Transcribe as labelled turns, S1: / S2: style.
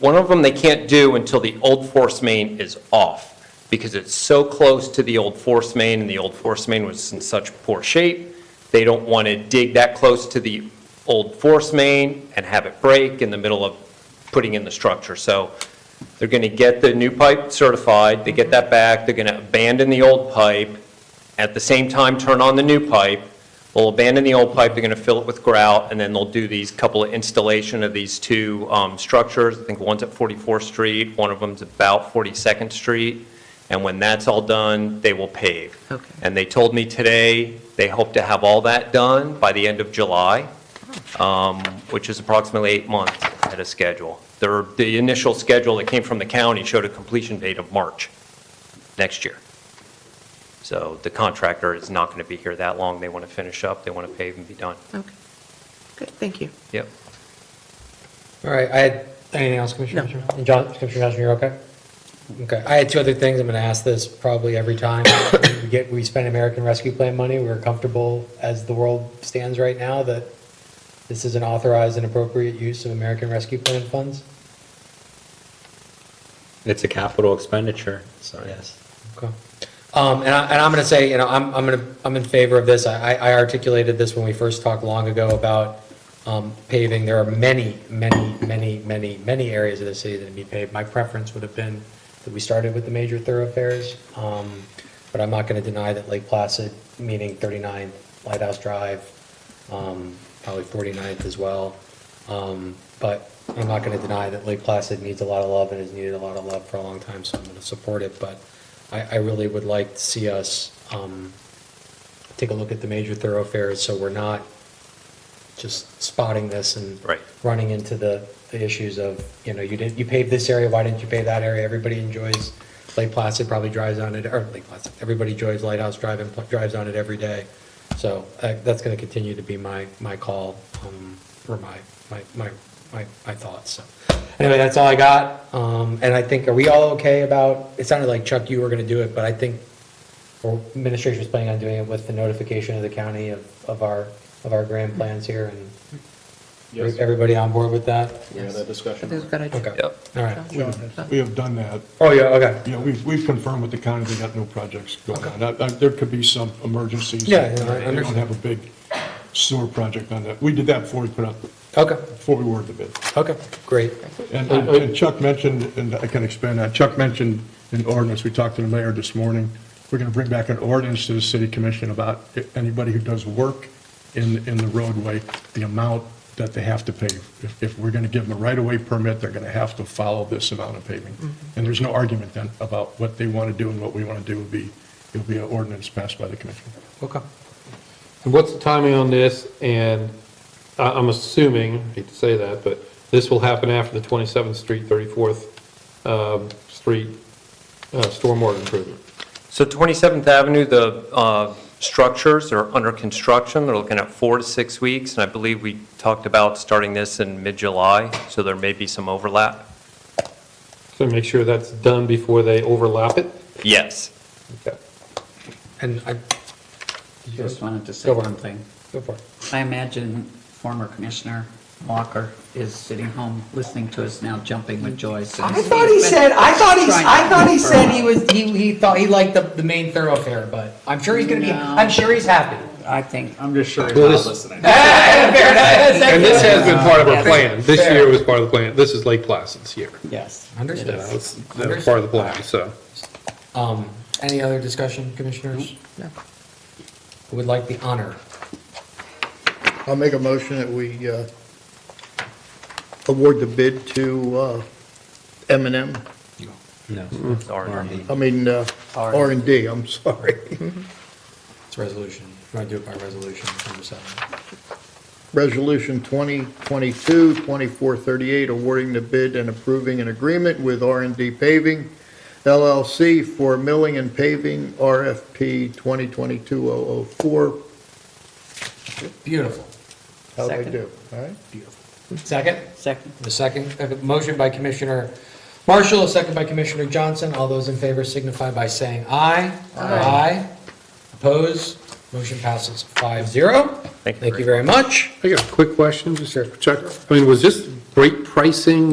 S1: One of them they can't do until the old force main is off, because it's so close to the old force main, and the old force main was in such poor shape, they don't want to dig that close to the old force main and have it break in the middle of putting in the structure. So they're going to get the new pipe certified, they get that back, they're going to abandon the old pipe, at the same time turn on the new pipe, they'll abandon the old pipe, they're going to fill it with grout, and then they'll do these couple of installation of these two um, structures. I think one's at 44th Street, one of them's about 42nd Street, and when that's all done, they will pave.
S2: Okay.
S1: And they told me today, they hope to have all that done by the end of July um, which is approximately eight months ahead of schedule. Their, the initial schedule that came from the county showed a completion date of March next year. So the contractor is not going to be here that long. They want to finish up, they want to pave and be done.
S2: Okay. Good, thank you.
S1: Yep.
S3: All right, I had, anything else, Commissioner?
S2: No.
S3: Johnson? John, Commissioner Johnson, you're okay? Okay, I had two other things, I'm gonna ask this probably every time we get, we spend American Rescue Plan money, we're comfortable as the world stands right now that this is an authorized and appropriate use of American Rescue Plan funds?
S4: It's a capital expenditure, so yes.
S3: Okay. Um, and I, and I'm gonna say, you know, I'm, I'm gonna, I'm in favor of this. I, I articulated this when we first talked long ago about, um, paving. There are many, many, many, many, many areas of the city that need paved. My preference would have been that we started with the major thoroughfares. Um, but I'm not gonna deny that Lake Placid, meaning 39 Lighthouse Drive, um, probably 49th as well. Um, but I'm not gonna deny that Lake Placid needs a lot of love and has needed a lot of love for a long time, so I'm gonna support it. But I, I really would like to see us, um, take a look at the major thoroughfares, so we're not just spotting this and
S1: Right.
S3: running into the, the issues of, you know, you didn't, you paved this area, why didn't you pave that area? Everybody enjoys Lake Placid, probably drives on it, or Lake Placid, everybody enjoys Lighthouse Drive and pl- drives on it every day. So uh, that's going to continue to be my, my call, um, or my, my, my, my my thoughts, so. Anyway, that's all I got, um, and I think, are we all okay about, it sounded like Chuck, you were going to do it, but I think or administration is planning on doing it with the notification of the county of, of our, of our grand plans here and
S5: Yes.
S3: everybody on board with that?
S5: We had that discussion.
S2: That's a good idea.
S3: Okay.
S1: Yep.
S3: All right.
S2: Sounds
S6: We
S2: good.
S6: have we have done that.
S3: Oh, yeah, okay.
S6: Yeah, we've, we've confirmed with the county they got no projects going on. Uh, uh, There could be some emergencies.
S3: Yeah, yeah, I
S6: They don't
S3: understand.
S6: have a big sewer project on that. We did that before we put out,
S3: Okay,
S6: before we awarded the bid.
S3: okay, great.
S6: And- And Chuck mentioned, and I can expand on, Chuck mentioned an ordinance, we talked to the mayor this morning, we're going to bring back an ordinance to the city commission about anybody who does work in, in the roadway, the amount that they have to pay. If, if we're going to give them a right-of-way permit, they're going to have to follow this amount of paving. And there's no argument then about what they want to do and what we want to do would be, it would be an ordinance passed by the commission.
S3: Okay.
S7: And what's the timing on this? And I- I'm assuming, hate to say that, but this will happen after the 27th Street, 34th um, Street uh, stormwater improvement.
S1: So 27th Avenue, the uh, structures are under construction. They're looking at four to six weeks, and I believe we talked about starting this in mid-July, so there may be some overlap.
S7: So make sure that's done before they overlap it.
S1: Yes.
S7: Okay.
S3: And I,
S8: Just wanted to say
S3: Go on.
S8: one thing.
S3: go for it.
S8: I imagine former Commissioner Walker is sitting home listening to us now, jumping with joy. since
S3: I thought he
S8: he's been
S3: said, I thought he,
S8: trying
S3: I
S8: to
S3: thought he
S8: confirm.
S3: said he was, he, he thought he liked the, the main thoroughfare, but I'm sure he's gonna be,
S8: No.
S3: I'm sure he's happy.
S8: I think,
S5: I'm just sure he's
S7: Well,
S5: not
S7: this-
S5: listening.
S7: And this has been part of our plan. This
S3: Fair.
S7: year was part of the plan. This is Lake Placid's year.
S8: yes.
S7: You know,
S3: Understood.
S7: it's- That was part of the plan, so.
S3: Um, any other discussion, commissioners?
S2: No.
S3: Who Would like the honor.
S9: I'll make a motion that we uh, award the bid to uh, m and M.
S4: No.
S1: Sorry.
S4: R&D.
S9: I mean, uh,
S3: R&D.
S9: R and D, I'm sorry.
S3: It's resolution. You want to do it by resolution, number seven.
S9: Resolution 2022-2438, awarding the bid and approving an agreement with r and D Paving LLC for milling and paving RFP 2022-004.
S3: Beautiful.
S9: How'd I
S8: Second.
S9: do? All right?
S3: Second?
S8: Second.
S3: The second, uh, motion by Commissioner Marshall, a second by Commissioner Johnson. All those in favor signify by saying aye. Aye. Opposed? Motion passes five zero.
S1: Thank you
S3: Thank you very much.
S7: I got a quick question, just check. I mean, was this great pricing